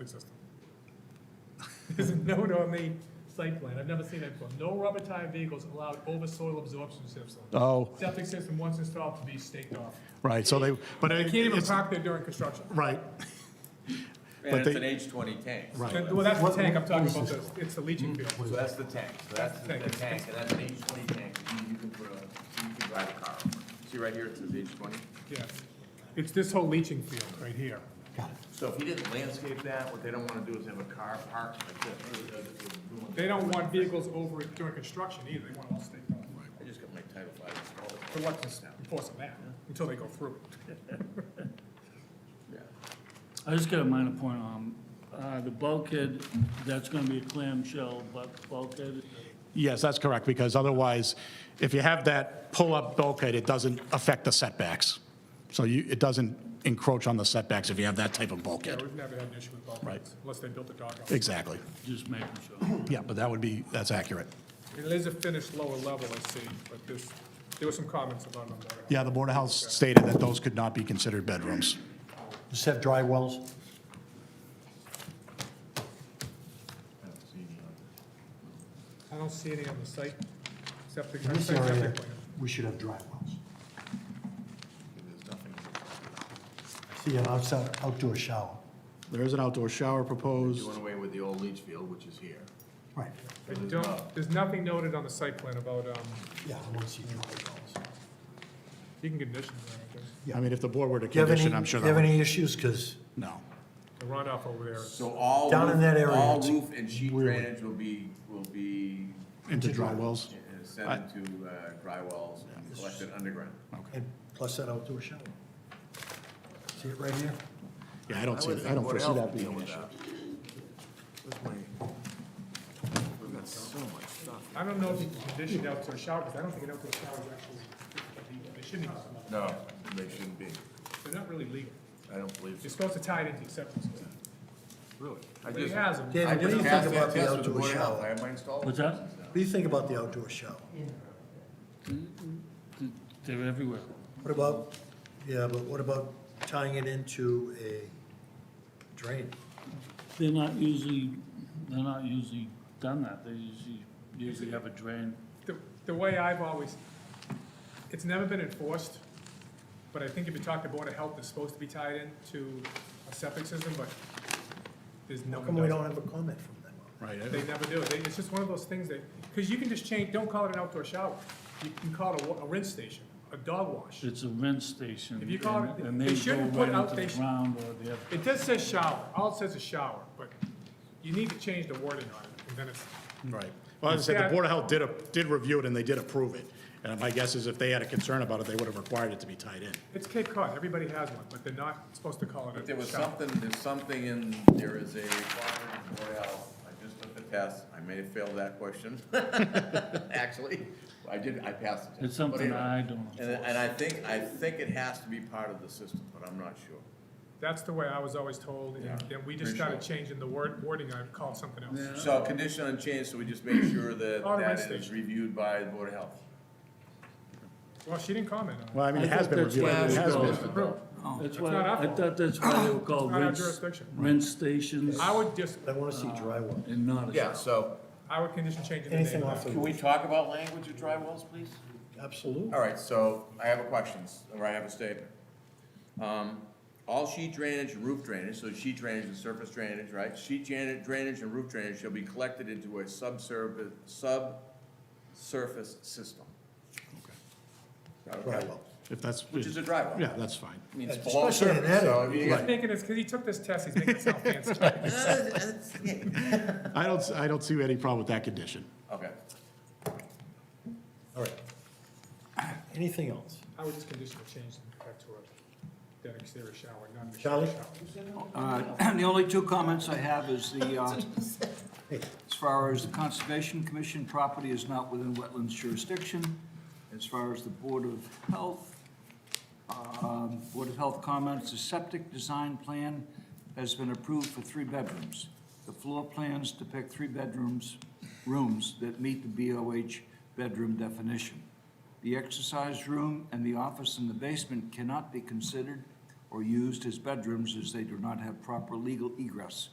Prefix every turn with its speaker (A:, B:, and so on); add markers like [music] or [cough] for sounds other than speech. A: existing. [laughs] There's a note on the site plan, I've never seen that before. No rubber tire vehicles allowed over soil absorption system.
B: Oh,
A: Septic system once installed to be staked off.
B: right, so they, but
A: They
B: it
A: can't even
B: it's-
A: park there during construction.
B: right,
C: And
B: But
C: it's
B: they-
C: an age twenty tank.
B: Right.
A: That- Well, that's the tank I'm talking about, the- it's the leaching
C: So
A: field.
C: that's the tank, so that's the
A: Tank.
C: the tank, and that's an age twenty tank, you you can put a, you can drive a car over. See right here, it says age twenty?
A: Yeah. It's this whole leaching field right here.
C: So if you didn't landscape that, what they don't wanna do is have a car parked like this. uh, uh, uh,
A: They don't want vehicles over it during construction either, they want it all staked off.
C: I just got my title five installed.
A: So what's the force of that, until they go through it?
C: Yeah.
D: I just got a minor point on, uh, the bulkhead, that's gonna be a clamshell, but bulkhead,
B: yes, that's correct, because otherwise, if you have that pull-up bulkhead, it doesn't affect the setbacks. So you, it doesn't encroach on the setbacks if you have that type of
A: Yeah,
B: bulkhead.
A: we've never had an issue with bulkheads,
B: Right.
A: unless they built a dog house.
B: Exactly,
D: just making sure.
B: yeah, but that would be, that's accurate.
A: It is a finished lower level, I see, but there's, there were some comments about them. that are-
B: Yeah, the Board of Health stated that those could not be considered bedrooms.
E: Just have dry wells?
A: I don't see any on the site, septic,
E: In
A: I
E: this
A: think
E: area,
A: septic plan.
E: we should have dry wells. I See an outside, outdoor shower.
B: There is an outdoor shower proposed.
C: Doing away with the old leach field, which is here.
E: Right,
A: I don't, there's nothing noted on the site plan about, um,
E: yeah, I want to see dry wells.
A: you can condition that, I guess.
B: I mean, if the board were to
E: Do you have
B: condition,
E: any,
B: I'm
E: do
B: sure
E: you have
B: that, would-
E: any issues? Because
B: no.
A: The runoff over there, is-
C: So all.
E: Down
C: roof-
E: in that area,
C: All
E: it's
C: roof and sheet
E: weird.
C: drainage will be, will be
B: Into dry wells?
C: uh, sent to uh, dry wells and collected underground.
E: and plus that outdoor shower. See it right here?
B: Yeah, I don't see,
C: would
B: that. I don't
C: think
B: foresee
C: what
B: that
C: else
B: being an
C: would deal
B: issue.
C: with that? Where's my- We've got so much stuff.
A: I don't know if you can condition the outdoor shower, because I don't think an outdoor shower is actually, they shouldn't, be-
C: No, they shouldn't be.
A: they're not really legal.
C: I don't believe
A: You're
C: so.
A: supposed to tie it into acceptance.
C: Really? I
A: But he
C: just,
A: has them.
C: I
E: David, what do
C: just
E: you
C: passed
E: think
C: that
E: about the
C: test with the
E: outdoor
C: Board of Health. I
E: shower?
C: have mine installed.
D: What's that?
E: What do you think about the outdoor shower?
D: They're everywhere.
E: What about, yeah, but what about tying it into a drain?
D: They're not usually, they're not usually done that, they usually, usually have a drain.
A: The, the way I've always, it's never been enforced, but I think if you talk to Board of Health, it's supposed to be tied in to a septic system, but there's no.
E: How come we don't have a comment from them?
B: Right, I-
A: They never do. They, it's just one of those things that, because you can just change, don't call it an outdoor shower. You can call it a, wa- a rinse station, a dog wash.
D: It's a rinse station.
A: If you call it-
D: and- and
A: they
D: go
A: shouldn't put
D: right
A: out-
D: into
A: they
D: the
A: sh-
D: ground or they have,
A: It does say shower, all it says is shower, but you need to change the wording on it, and then it's,
B: Right. Well, as I said, the Board of Health did, a- did review it and they did approve it. And my guess is if they had a concern about it, they would have required it to be tied in.
A: it's Cape Cod, everybody has one, but they're not supposed to call it
C: There
A: a
C: was
A: shower.
C: something, there's something in, there is a requirement in Board of Health. I just took the test. I may have failed that question, [laughs] actually. I did, I passed the test.
D: it's something
C: But anyway.
D: I don't
C: And,
D: enforce.
C: and I think, I think it has to be part of the system, but I'm not sure.
A: That's the way I was always told,
C: Yeah.
A: and then we just started
C: Appreciate
A: changing the word, wording, I called something else.
C: So condition unchanged, so we just make sure that
A: Auto
C: that
A: rest
C: is
A: station.
C: reviewed by the Board of Health.
A: Well, she didn't comment on it.
B: Well, I mean, it has been reviewed.
D: I
B: It
D: thought
B: has
D: that's why-
B: been.
A: It's approved.
D: That's
A: not
D: why,
A: our
D: I
A: fault.
D: thought that's why they were called
A: It's not our
D: rinse,
A: jurisdiction.
D: rinse stations
A: I would just,
E: I want to see dry wells.
D: and not a.
C: Yeah, so,
A: I would condition changing the name.
E: Anything
A: of
E: off
A: that.
E: the,
C: can we talk about language of dry wells, please?
E: absolutely.
C: All right, so I have a questions, or I have a statement. Um, all sheet drainage, and roof drainage, so sheet drainage and surface drainage, right? Sheet drainage, drainage and roof drainage shall be collected into a subsurface, subsurface system.
E: Dry
C: Okay.
E: wells.
B: If that's,
C: Which is a dry well.
B: yeah, that's fine.
C: I mean, it's
E: Yeah,
C: below
E: especially in
C: surface,
E: that
C: so
E: area.
C: if you
A: He's
C: got-
A: making this, because he took this test, he's making it sound
C: [laughs]
A: fancy.
B: I don't, I don't see any problem with that condition.
C: Okay.
E: All right. Anything else?
A: I would just condition the change back to a, that exterior shower, not an
E: Charlie?
A: exterior shower.
F: Uh, [clears throat] The only two comments I have is the, uh, as far as the Conservation Commission property is not within wetlands jurisdiction. As far as the Board of Health, um, Board of Health comments, the septic design plan has been approved for three bedrooms. The floor plans depict three bedrooms, rooms that meet the BOH bedroom definition. The exercise room and the office in the basement cannot be considered or used as bedrooms as they do not have proper legal egress.